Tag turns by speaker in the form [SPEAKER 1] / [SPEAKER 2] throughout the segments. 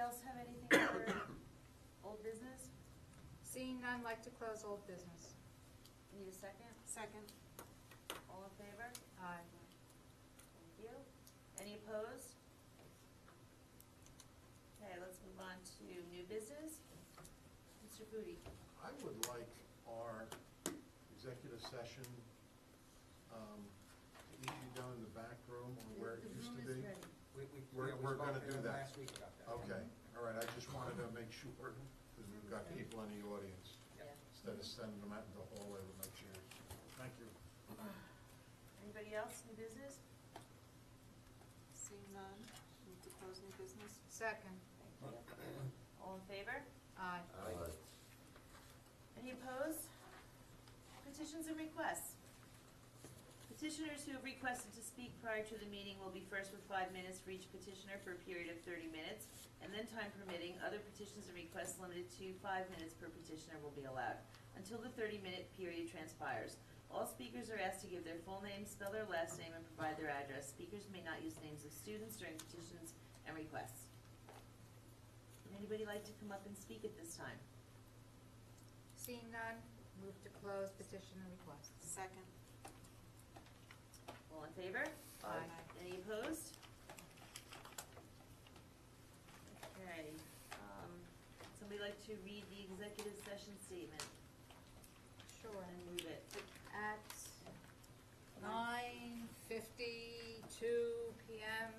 [SPEAKER 1] else have anything for old business?
[SPEAKER 2] Seeing none, like to close old business.
[SPEAKER 1] Need a second?
[SPEAKER 3] Second.
[SPEAKER 1] All in favor?
[SPEAKER 2] Aye.
[SPEAKER 1] Thank you. Any opposed? Okay, let's move on to new business. Mr. Booty,
[SPEAKER 4] I would like our executive session um, to issue down in the back room or where it used to be.
[SPEAKER 5] We, we.
[SPEAKER 4] We're-
[SPEAKER 5] yeah, we
[SPEAKER 4] we're gonna
[SPEAKER 5] spoke
[SPEAKER 4] do that.
[SPEAKER 5] Last week about that.
[SPEAKER 4] Okay, all right, I just wanted to make sure, because we've got people in the audience,
[SPEAKER 5] Yeah.
[SPEAKER 4] instead of sending them out in the hallway with my chairs. Thank you.
[SPEAKER 1] anybody else in business?
[SPEAKER 3] Seeing none, move to close new business.
[SPEAKER 2] Second.
[SPEAKER 1] Thank you. All in favor?
[SPEAKER 2] Aye.
[SPEAKER 1] Any opposed? Petitions and requests. Petitioners who have requested to speak prior to the meeting will be first with five minutes for each petitioner for a period of thirty minutes, and then time permitting, other petitions and requests limited to five minutes per petitioner will be allowed, until the thirty-minute period transpires. All speakers are asked to give their full name, spell their last name, and provide their address. Speakers may not use names of students during petitions and requests. Would anybody like to come up and speak at this time?
[SPEAKER 2] Seeing none, move to close petition and requests.
[SPEAKER 3] Second.
[SPEAKER 1] All in favor?
[SPEAKER 2] Aye.
[SPEAKER 1] Any opposed? Okay, um, somebody like to read the executive session statement
[SPEAKER 2] Sure.
[SPEAKER 1] and move it?
[SPEAKER 2] At nine fifty-two PM,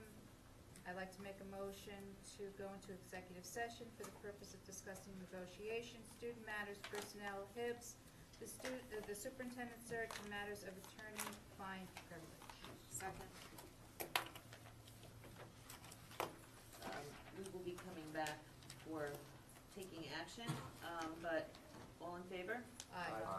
[SPEAKER 2] I'd like to make a motion to go into executive session for the purpose of discussing negotiations, student matters, personnel, HIBs, the stu, uh, the superintendent search, and matters of attorney-client privilege.
[SPEAKER 3] Second.
[SPEAKER 1] Um, we will be coming back for taking action, um, but all in favor?
[SPEAKER 2] Aye.